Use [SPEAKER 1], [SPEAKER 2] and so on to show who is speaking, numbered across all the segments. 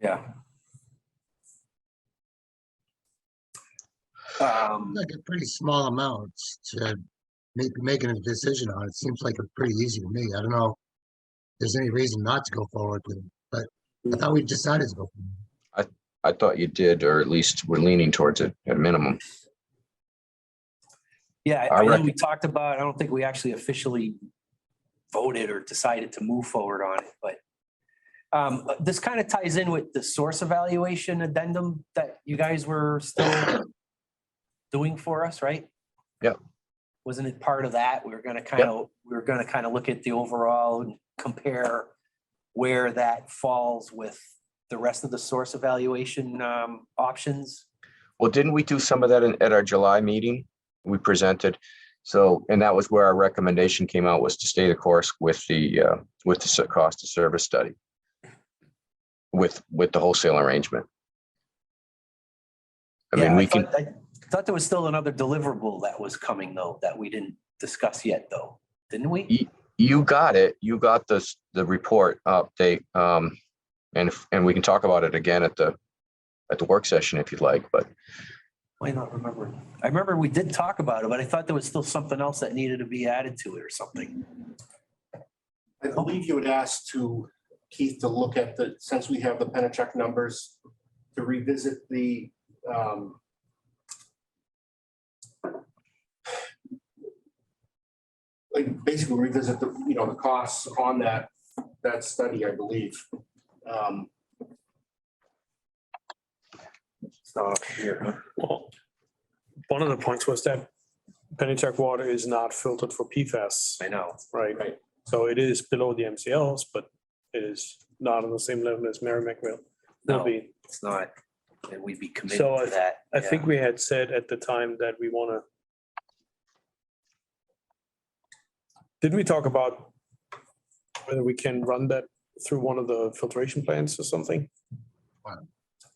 [SPEAKER 1] Yeah. Um,
[SPEAKER 2] Like a pretty small amount to make, making a decision on. It seems like a pretty easy to me. I don't know. if There's any reason not to go forward with it, but I thought we decided to go. forward.
[SPEAKER 3] I thought you did, or at least we're leaning towards it at minimum.
[SPEAKER 1] yeah,
[SPEAKER 3] I
[SPEAKER 1] I know
[SPEAKER 3] reckon-
[SPEAKER 1] we talked about, it. I don't think we actually officially voted or decided to move forward on it, but um, this kind of ties in with the source evaluation addendum that you guys were still doing for us, right?
[SPEAKER 3] Yep.
[SPEAKER 1] Wasn't it part of that? We were gonna kind of, we were gonna kind of look at the overall and compare where that falls with the rest of the source evaluation um, options.
[SPEAKER 3] Well, didn't we do some of that in- at our July meeting? We presented, so, and that was where our recommendation came out was to stay the course with the, uh, with the s- cost of service study. With, with the wholesale arrangement. I
[SPEAKER 1] Yeah,
[SPEAKER 3] mean, we can,
[SPEAKER 1] thought- I thought there was still another deliverable that was coming though, that we didn't discuss yet though, didn't we?
[SPEAKER 3] Ye- you got it, you got this, the report update, um, and, if- and we can talk about it again at the, at the work session if you'd like, but
[SPEAKER 1] Why not remember? I remember we did talk about it, but I thought there was still something else that needed to be added to it or something.
[SPEAKER 4] I believe you had asked to Keith to look at the, since we have the Penachuk numbers, to revisit the um, like basically revisit the, you know, the costs on that, that study, I believe. Um,
[SPEAKER 1] It's not up here.
[SPEAKER 5] Well, one of the points was that Pennachuck water is not filtered for PFAS,
[SPEAKER 1] I know.
[SPEAKER 5] right?
[SPEAKER 4] Right.
[SPEAKER 5] So it is below the MCLs, but it is not on the same level as Merrimack will, will
[SPEAKER 1] No,
[SPEAKER 5] be.
[SPEAKER 1] it's not. And we'd be committed
[SPEAKER 5] So
[SPEAKER 1] to that.
[SPEAKER 5] I think we had said at the time that we want to. Didn't we talk about whether we can run that through one of the filtration plants or something?
[SPEAKER 2] Wow.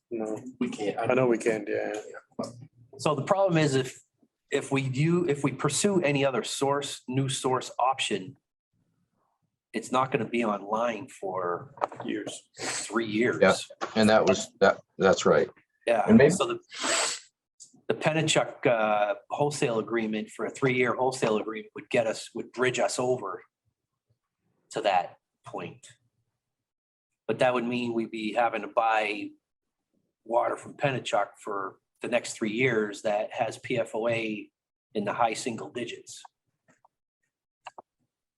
[SPEAKER 5] No,
[SPEAKER 4] We can't.
[SPEAKER 5] I know we can, yeah.
[SPEAKER 1] So the problem is if, if we do, if we pursue any other source, new source option, it's not going to be online for
[SPEAKER 5] years.
[SPEAKER 1] three years.
[SPEAKER 3] Yeah. And that was, that, that's right.
[SPEAKER 1] Yeah,
[SPEAKER 3] And maybe-
[SPEAKER 1] so the, the Penachuk uh, wholesale agreement for a three-year wholesale agreement would get us, would bridge us over to that point. But that would mean we'd be having to buy water from Penachuk for the next three years that has PFOA in the high single digits.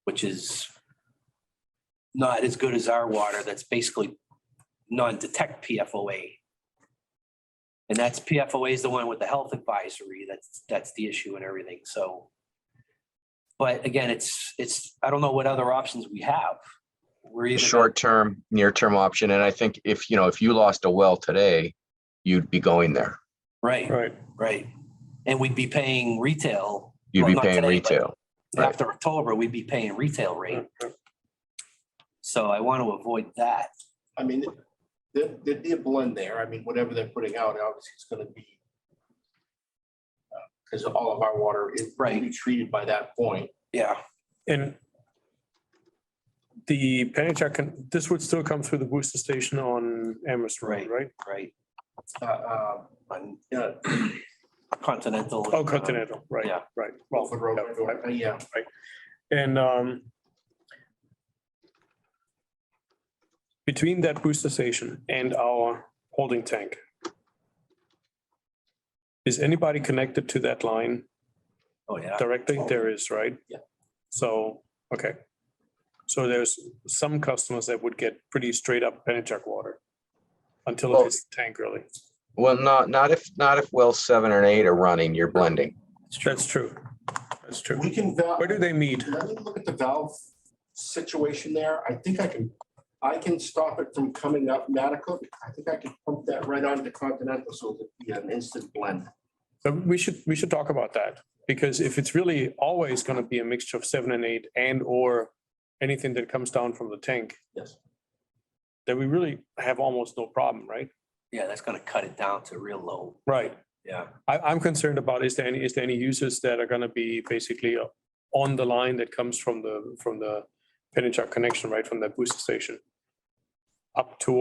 [SPEAKER 1] Which is not as good as our water that's basically non-detect PFOA. And that's PFOA is the one with the health advisory. That's, that's the issue and everything. So. But again, it's, it's, I don't know what other options we have. We're
[SPEAKER 3] The
[SPEAKER 1] either gonna-
[SPEAKER 3] short term, near term option. And I think if, you know, if you lost a well today, you'd be going there.
[SPEAKER 1] Right,
[SPEAKER 5] Right,
[SPEAKER 1] right. And we'd be paying retail
[SPEAKER 3] You'd
[SPEAKER 1] Well,
[SPEAKER 3] be
[SPEAKER 1] not
[SPEAKER 3] paying
[SPEAKER 1] today, but-
[SPEAKER 3] retail. Right.
[SPEAKER 1] after October, we'd be paying retail rate. So I want to avoid that.
[SPEAKER 4] I mean, there, there'd be a blend there. I mean, whatever they're putting out, obviously it's gonna be because all of our water is will be
[SPEAKER 1] Right.
[SPEAKER 4] treated by that point.
[SPEAKER 1] Yeah,
[SPEAKER 5] And the Pennachuck can, this would still come through the booster station on Amherst Road, right?
[SPEAKER 1] right.
[SPEAKER 4] Uh, uh,
[SPEAKER 1] On
[SPEAKER 4] Yeah,
[SPEAKER 1] Continental.
[SPEAKER 5] Oh, Continental, right,
[SPEAKER 1] Yeah.
[SPEAKER 5] right.
[SPEAKER 4] Rolford Road,
[SPEAKER 5] Yeah, right.
[SPEAKER 4] yeah.
[SPEAKER 5] And um between that booster station and our holding tank, is anybody connected to that line
[SPEAKER 1] Oh, yeah.
[SPEAKER 5] directly? There is, right?
[SPEAKER 4] Yeah.
[SPEAKER 5] So, okay. So there's some customers that would get pretty straight up Pennachuck water until
[SPEAKER 3] Well-
[SPEAKER 5] it hits the tank really.
[SPEAKER 3] Well, not, not if, not if well seven and eight are running, you're blending.
[SPEAKER 5] That's true. That's true.
[SPEAKER 4] We can. val-
[SPEAKER 5] Where do they meet?
[SPEAKER 4] Let me look at the valve situation there. I think I can, I can stop it from coming up Matticoat. I think I can pump that right onto Continental, so it'll be an instant blend.
[SPEAKER 5] But we should, we should talk about that, because if it's really always gonna be a mixture of seven and eight and or anything that comes down from the tank.
[SPEAKER 4] Yes.
[SPEAKER 5] Then we really have almost no problem, right?
[SPEAKER 1] Yeah, that's going to cut it down to real low.
[SPEAKER 5] Right.
[SPEAKER 1] Yeah.
[SPEAKER 5] I, I'm concerned about, is there any, is there any users that are gonna be basically uh, on the line that comes from the, from the Pennachuck connection, right, from that booster station? Up to